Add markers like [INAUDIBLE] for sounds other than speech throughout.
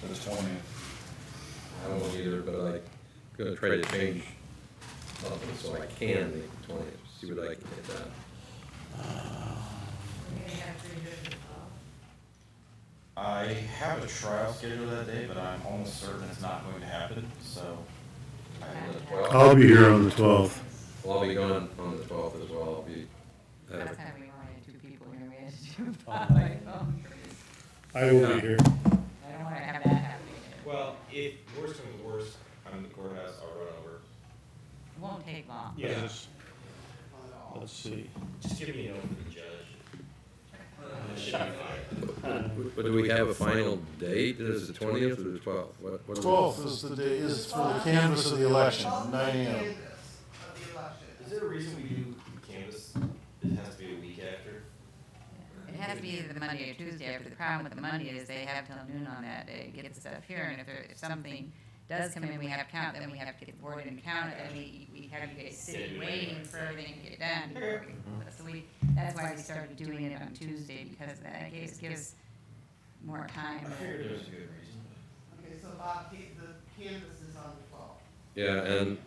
for the twentieth. I won't either, but I'm gonna try to change something so I can make the twentieth, see what I can get done. I have a trial scheduled that day, but I'm almost certain it's not going to happen, so. On the I- 12th. I'll be here on the 12th. uh, Well, I'll be gone on the twelfth as well, I'll be, uh, Last time we wanted two people here, we had to do it by phone. I will be here. I don't wanna have that happening again. Well, if worst comes to worst, I'm in the courthouse, I'll run over. It won't take long. Yes. Let's see. Just give me a note from the judge. That should be fine. but do we have a final date, is it the twentieth or the twelfth? What? what do we- Twelfth is the day, is for the canvas of the election, nine AM. Is there a reason we do canvas, it has to be a week after? It has to be either the Monday or Tuesday after. The problem with the Monday is they have till noon on that day to get the stuff here, and if there, if something does come in, we have to count, then we have to get the board in and count it, then we, we have you guys sitting, waiting for everything to get done. before we- So we, that's why we started doing it on Tuesday, because that gives, gives more I time. figured there was a good reason. Okay, so Bob, ca- the canvas is on the twelfth. Yeah, and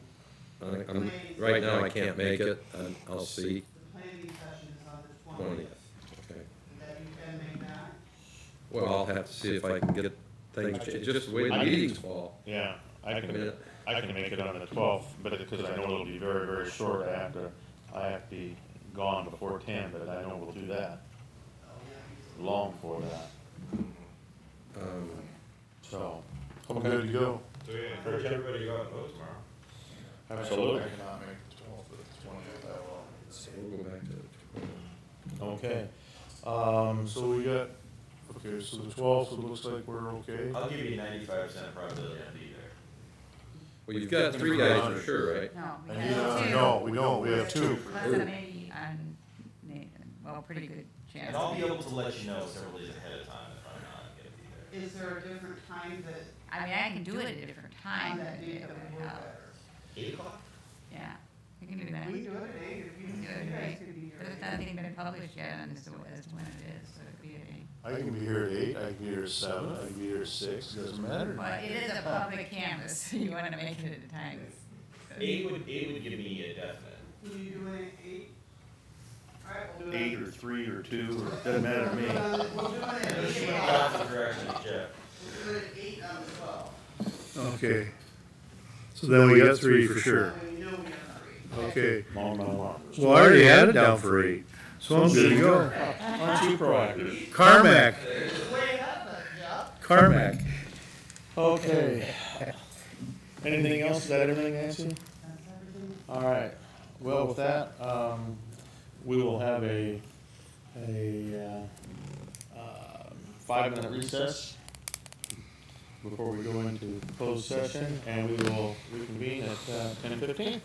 I- I'm, Um, right now I can't make it, and I'll see The planning session is on the twentieth. twentieth. Okay. And that you can make that? Well, I'll have to see if I can get things, cha- just the way the meetings fall. Yeah, I I mean, can, I can make it on the twelfth, but because I know it'll be very, very short, I have to, I have to be gone before ten, but I know we'll do that. Oh, Long for that, um, so. I'm good to go. So we encourage everybody to go out and vote tomorrow. Absolutely. I cannot make the twelfth, but the twentieth I will. we'll go back to the 12th. Okay, um, so we got, okay, so the twelfth, it looks like we're okay. I'll give you ninety-five percent probability I'll be there. Well, you've got three guys for sure, right? No, we And have you two. know, Uh, no, we don't, we have two. Plus a maybe on Nathan, well, pretty good chance. And I'll be able to let you know several days ahead of time if I'm not gonna be there. Is there a different time that, I mean, I can do it at a different time, on but that date it that would would work help. better? Eight o'clock? yeah, we can do that. We can do it at eight, if you, can do it at you guys eight. could be here. But it's at not eight. even been published yet on this, as to when it is, so it could be at eight. I can be here at eight, I can be here at seven, I can be here at six, doesn't matter. But it is a public canvas, [LAUGHS] so you wanna make it at a time. Eight would, eight would give me a definite. Can you do it at eight? All right, we'll do it. Eight or three or two, or, doesn't matter to We'll do me. it on- We'll do it at Let's eight swing o'clock. back in the direction of Jeff. We'll do it at eight on the twelfth. Okay. So then we got three for sure. That way you know we have three. Okay. Long, long, long. Well, I already had it down for eight, so I'm good to go. Aren't you proactive? Carmack, Way ahead, but, yeah. Carmack. Okay. Anything else? Is that everything, Nancy? That's everything. All right. Well, with that, um, we will have a, a, uh, um, five-minute recess before we go into closed session, and we will reconvene at, uh, ten fifteen.